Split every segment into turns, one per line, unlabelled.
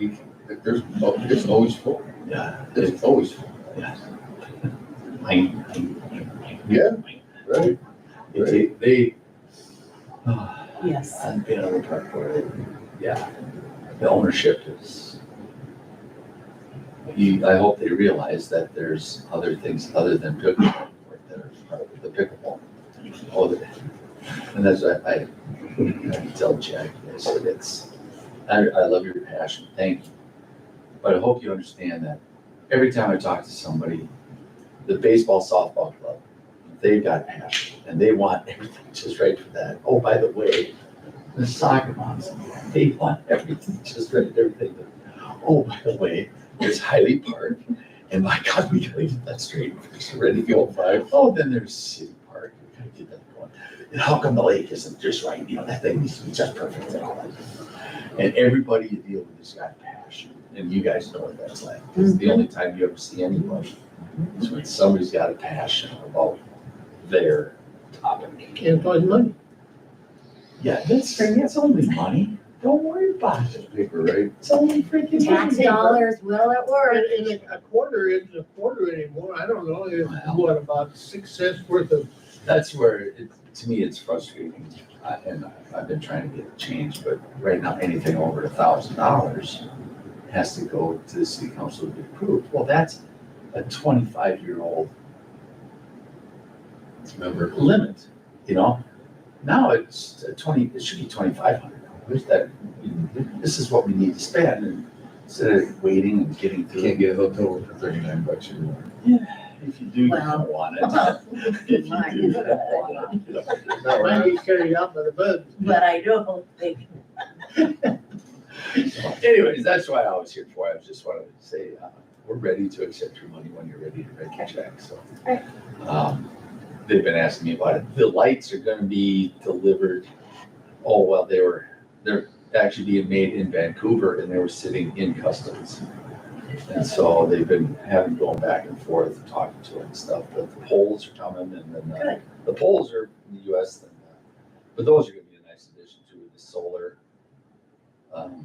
You can, there's, oh, it's always full.
Yeah.
It's always full,
I,
Yeah. right?
they, they, uh,
Yes.
I've been on the park board, yeah, the ownership is. You, I hope they realize that there's other things other than pickleball, like there's the pickleball. all of it. And that's, why I, I tell Jack, I said, it's, I, I love your passion, thank you. But I hope you understand that every time I talk to somebody, the baseball softball club, they've got passion and they want everything just right for that. Oh, by the way, the soccer moms, they want everything just right, everything. Oh, by the way, there's Highly Park and my God, we gotta get that straight. It's ready to go.
Five,
Oh, then there's City Park, we gotta get that going. And how come the lake isn't just right, you know, that thing needs to be just perfect and all that. And everybody you deal with has got passion, and you guys know what that's like, it's the only time you ever see anybody is when somebody's got a passion about their topic.
And find money.
Yeah, that's, that's only money, don't worry about it,
paper, right?
it's only freaking money.
Tax dollars will at
And,
work.
and a- a quarter isn't a quarter anymore, I don't know, it's
Wow.
what, about six cents worth of,
That's where, it, to me, it's frustrating, I- and I've been trying to get it changed, but right now, anything over a thousand dollars has to go to the city council to be approved, well, that's a twenty-five-year-old
Remember,
limit, you know? Now it's a twenty, it should be twenty-five hundred dollars, that, this is what we need to spend, and instead of waiting and getting
you
through.
can't get a hotel room for thirty-nine bucks anymore.
If you do, you don't want it. If you do, you don't want it. you know?
No,
might
right?
be carried out by the bud.
But I don't think,
Anyways, that's why I was here for. I just wanted to say, uh, we're ready to accept your money when you're ready to write your check, so.
Alright.
Um, they've been asking me about it. The lights are gonna be delivered, oh, well, they were, they're actually being made in Vancouver and they were sitting in customs. And so they've been having going back and forth, and talking to it and stuff, but the poles are coming and then the,
Good.
the poles are in the US. then, uh, But those are gonna be a nice addition to the solar. um,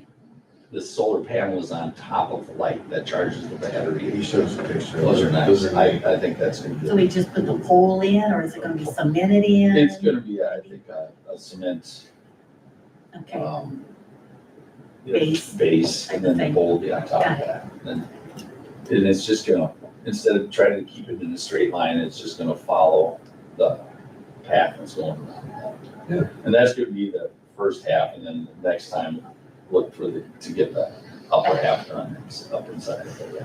The solar panel is on top of the light that charges the battery.
He showed us a picture.
Those are nice. I, I think that's gonna
so
be,
we just put the pole in or is it gonna be cemented in?
it's gonna be, I think, a a cement,
Okay, Oh,
um, you know,
Base.
Base and then the
Thing.
mold on top of
Got it.
that. And and it's just gonna, instead of trying to keep it in a straight line, it's just gonna follow the path that's going around.
Yeah.
And that's gonna be the first half and then the next time, look for the, to get the upper half done, it's up inside of it.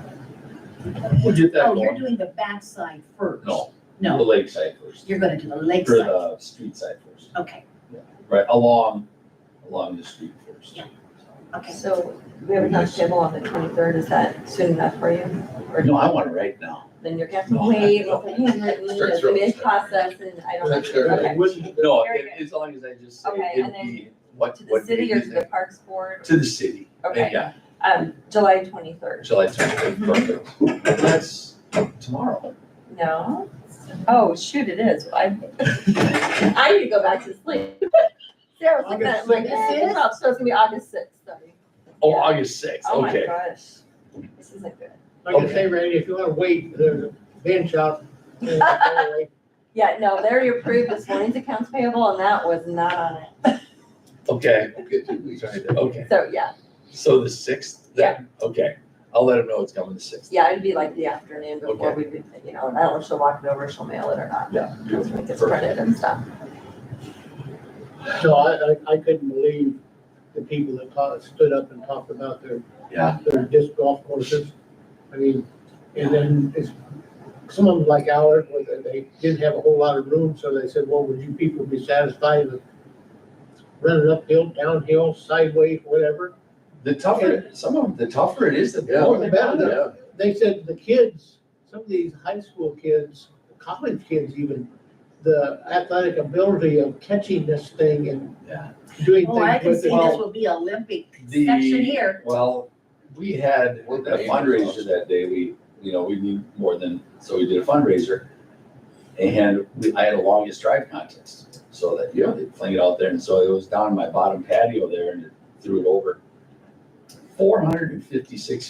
We'll get that
oh, you're
going.
doing the backside first?
No, uh, the
No,
lakeside first,
you're gonna do the
or
lakeside,
the street side first,
okay,
right, along, along the street first.
Yeah. okay.
So we have a lunch table on the twenty-third, is that soon enough for you? Or
No, I want it right now.
Then you're gonna have to wait, with the handwritten,
Start
it's
throwing
in
stuff.
process, and I don't.
That's all right.
okay.
Wouldn't-
No,
Very
it- as long as I just say
Okay,
it'd
and then
be, what,
To the
what date
city or
is
to the
it?
Parks Board,
To the city.
Okay.
Yeah,
um, July twenty-third,
July twenty-third, perfect. That's tomorrow.
no? Oh, shoot, it is, I, I need to go back to sleep. Sarah was looking at it, like,
August
eh,
sixth?
it's not- so it's gonna be August sixth, sorry.
Oh,
Yeah.
August sixth,
Oh my
okay.
gosh, this isn't good.
Like I say, Randy, if you wanna wait, there's a bench out. there.
Yeah, no, they already approved this morning's accounts payable, and that was not on
Okay,
Okay, two weeks.
okay.
it, so, yeah,
So the sixth then? Okay. I'll let him know it's coming the sixth.
yeah, it'd be like the afternoon before we, would, you know, and I don't know if she'll walk it over, she'll mail it or not,
Yeah.
like it's printed and stuff.
So I, I, I couldn't believe the people that taught, stood up and talked about their
Yeah,
their disc golf courses. I mean, and then it's, some of them like ours, where they- they didn't have a whole lot of room, so they said, well, would you people be satisfied with running uphill, downhill, sideways, whatever?
the tougher, some of them, the tougher it is, the
Yeah.
more they
Yeah.
found it.
They said the kids, some of these high school kids, college kids even, the athletic ability of catching this thing and
Yeah.
doing
Oh, I
things
can
with
see
it.
this will be Olympic
The-
section here.
Well, we had a
We're paying
fundraiser
for
that day, we, you know, we need more than, so we did a fundraiser. And we, I had a longest drive contest, so that, you know, they fling it out there, and so it was down in my bottom patio there and threw it over. four hundred and fifty-six